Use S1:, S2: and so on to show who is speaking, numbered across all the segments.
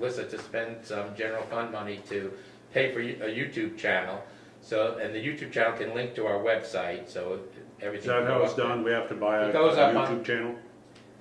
S1: Alyssa to spend some general fund money to pay for a YouTube channel. So, and the YouTube channel can link to our website, so everything.
S2: Is that
S1: can
S2: how
S1: go
S2: it's
S1: up there.
S2: done? We have to buy a
S1: It
S2: a
S1: goes up on-
S2: YouTube channel?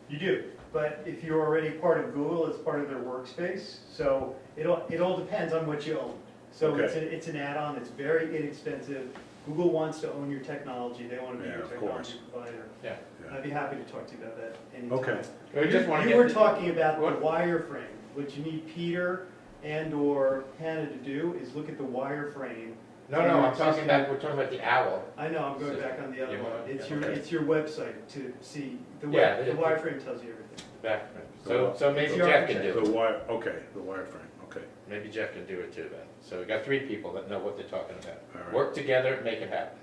S3: You do, but if you're already part of Google, it's part of their workspace, so it all, it all depends on what you own. So it's, a- it's an add-on, it's very inexpensive, Google wants to own your technology, they wanna be
S2: Yeah,
S3: your
S2: of
S3: technology provider.
S1: Yeah.
S2: Yeah.
S3: I'd be happy to talk to you about that
S2: Okay.
S3: anytime.
S1: We just wanna
S3: You-
S1: get
S3: You were
S1: the-
S3: talking about
S1: What?
S3: the wireframe, what you need Peter and/or Hannah to do is look at the wireframe.
S1: No, no, I'm talking about, we're talking about the owl.
S3: I know, I'm going back on the other
S1: You
S3: one,
S1: want-
S3: it's
S1: yeah,
S3: your,
S1: okay.
S3: it's your website to see, the
S1: Yeah,
S3: web,
S1: the-
S3: the wireframe tells you everything.
S1: Back- So, so maybe
S3: It's your
S1: Jeff can
S2: The
S1: do it.
S2: wire, okay, the wireframe, okay.
S1: Maybe Jeff can do it too then. So we got three people that know what they're talking
S2: All
S1: about.
S2: right.
S1: Work together, make it happen.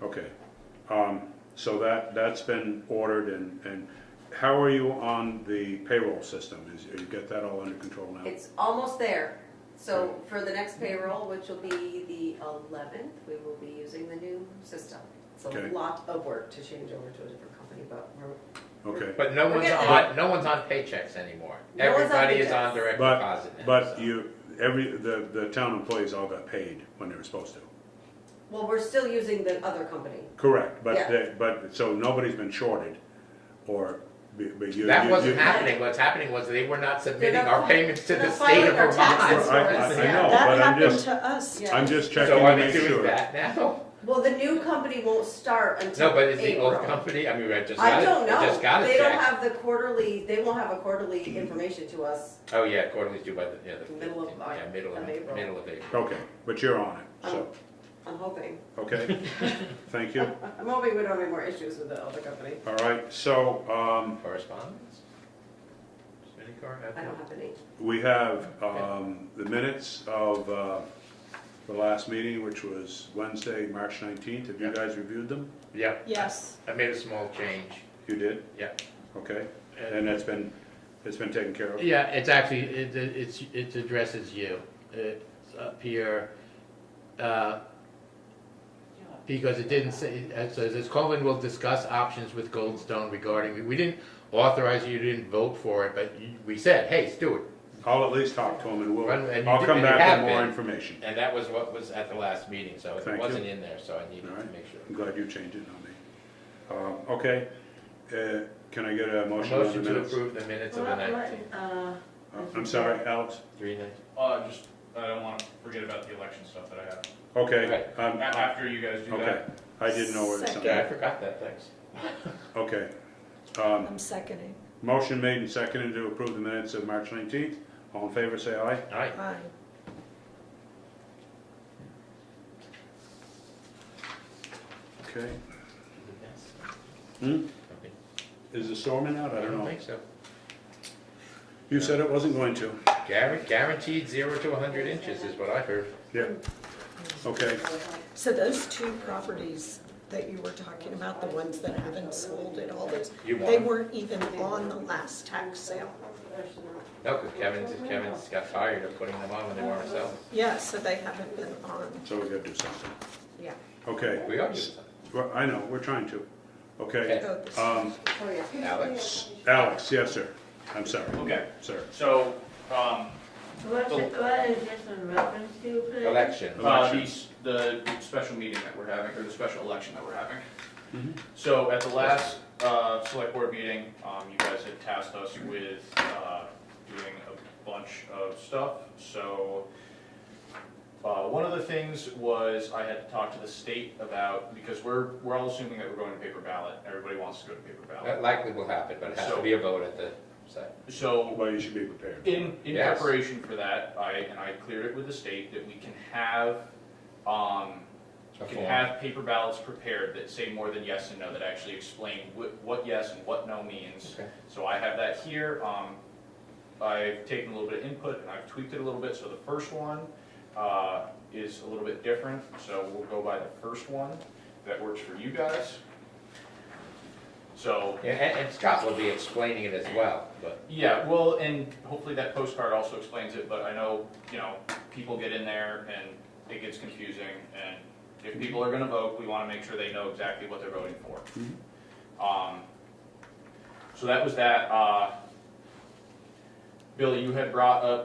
S2: Okay, um, so that, that's been ordered and, and how are you on the payroll system? Is, you get that all under control now?
S4: It's almost there. So for the next payroll, which will be the eleventh, we will be using the new system. It's
S2: Okay.
S4: a lot of work to change over to a different company, but we're,
S2: Okay,
S1: But no
S4: We're
S1: one's
S4: getting
S1: on, no one's on paychecks anymore.
S4: No one's on
S1: Everybody is on
S4: paychecks.
S1: direct
S2: but,
S1: deposit now.
S2: but
S1: so.
S2: you, every, the, the town employees all got paid when they were supposed to.
S4: well, we're still using the other company.
S2: Correct, but
S4: Yeah.
S2: they, but, so nobody's been shorted or, be- but you.
S1: That
S2: you-
S1: wasn't
S2: you-
S1: happening. What's happening was they were not submitting
S4: They're not
S1: our
S4: fi-
S1: payments to
S4: they're
S1: the
S4: not
S1: state of
S4: filing their
S1: Vermont.
S4: taxes.
S2: I, I- I
S4: Yeah.
S2: know,
S5: That
S2: Oh, but I'm
S5: happened
S2: just,
S5: to us.
S4: Yeah.
S2: I'm just checking
S1: So
S2: to
S1: are they
S2: make
S1: doing
S2: sure.
S1: that now?
S4: Well, the new company won't start until
S1: No, but is the old
S4: April.
S1: company, I mean, I just got
S4: I
S1: it,
S4: don't
S1: I just got
S4: know.
S1: it
S4: They don't
S1: checked.
S4: have the quarterly, they won't have a quarterly information to us.
S1: Oh, yeah, quarterly's due by the, yeah, the.
S4: Middle of
S1: 15th,
S4: Mar-
S1: Yeah, middle of,
S4: of April.
S1: middle of April.
S2: Okay, but you're on it,
S4: I'm,
S2: so,
S4: I'm hoping.
S2: okay, thank you.
S4: I'm hoping we don't have any more issues with the other company.
S2: All right, so, um,
S1: Correspondence? Does any car have
S4: I
S1: one?
S4: don't have any.
S2: we have, um, the minutes of, uh, the last meeting, which was Wednesday, March nineteenth. Have you guys reviewed them?
S1: Yeah,
S5: Yes.
S1: I made a small change,
S2: You did?
S1: yeah.
S2: Okay, and that's been, it's been taken care of?
S1: Yeah, it's actually, it, it- it's, it addresses you. It's up here, uh, because it didn't say, it says, as Colvin will discuss options with Goldstone regarding, we didn't authorize you, you didn't vote for it, but you- we said, hey, Stuart.
S2: I'll at least talk to them and we'll,
S1: Run- and you
S2: I'll
S1: did-
S2: come
S1: and you
S2: back
S1: have
S2: with more
S1: been.
S2: information.
S1: And that was what was at the last meeting, so
S2: Thank
S1: it
S2: you.
S1: wasn't in there, so I needed
S2: All
S1: to
S2: right.
S1: make sure.
S2: I'm glad you changed it, not me. Um, okay, uh, can I get a motion on the
S1: Motion to
S2: minutes?
S1: approve the minutes of the nineteenth,
S4: Uh,
S2: Uh, I'm sorry, Alex?
S1: three nights.
S6: Uh, just, I don't want to forget about the election stuff that I have.
S2: Okay,
S1: Right.
S2: um,
S6: A- After you guys do
S2: okay,
S6: that,
S2: I didn't know where it's
S5: Second.
S2: on.
S1: Yeah, I forgot that, thanks.
S2: Okay. Um,
S5: I'm seconding.
S2: Motion made and seconded to approve the minutes of March 19th. All in favor, say aye.
S1: All right,
S5: Aye.
S2: Okay. Hmm? Is the storming out?
S1: I
S2: I don't
S1: don't
S2: know.
S1: think so.
S2: You said it wasn't going to.
S1: Guar- Guaranteed zero to hundred inches is what I heard.
S2: Yeah. Okay,
S5: So those two properties that you were talking about, the ones that haven't sold and all those,
S1: You
S5: they
S1: won.
S5: weren't even on the last tax sale.
S1: No, because Kevin's, Kevin's got tired of putting them on when they weren't selling.
S5: Yeah, so they haven't been on,
S2: so we gotta do something.
S5: yeah.
S2: Okay.
S1: We are doing something.
S2: Well, I know, we're trying to. Okay.
S5: Oh, this-
S2: Um,
S4: oh, yeah.
S1: Alex?
S2: Alex, yes, sir. I'm sorry.
S6: Okay.
S2: Sir.
S6: so, um,
S7: What, what is this in reference to, please?
S1: Election.
S6: uh,
S2: Election.
S6: these, the special meeting that we're having, or the special election that we're having. So at the last, uh, select board meeting, um, you guys had tasked us with, uh, doing a bunch of stuff, so, uh, one of the things was I had to talk to the state about, because we're, we're all assuming that we're going to paper ballot, everybody wants to go to paper ballot.
S1: That likely will happen, but it has to be a vote at the site.
S6: So
S2: Well, you should be prepared.
S6: In, in
S1: Yes.
S6: preparation for that, I, and I cleared it with the state that we can have, um,
S1: A
S6: can
S1: form.
S6: have paper ballots prepared that say more than yes and no, that actually explain what, what yes and what no means.
S1: Okay.
S6: So I have that here, um, I've taken a little bit of input and I've tweaked it a little bit, so the first one, uh, is a little bit different, so we'll go by the first one that works for you guys. So,
S1: Yeah, And, and Scott will be explaining it as well, but.
S6: yeah, well, and hopefully that postcard also explains it, but I know, you know, people get in there and it gets confusing, and if people are gonna vote, we wanna make sure they know exactly what they're voting for. Um, so that was that, uh, Billy, you had brought up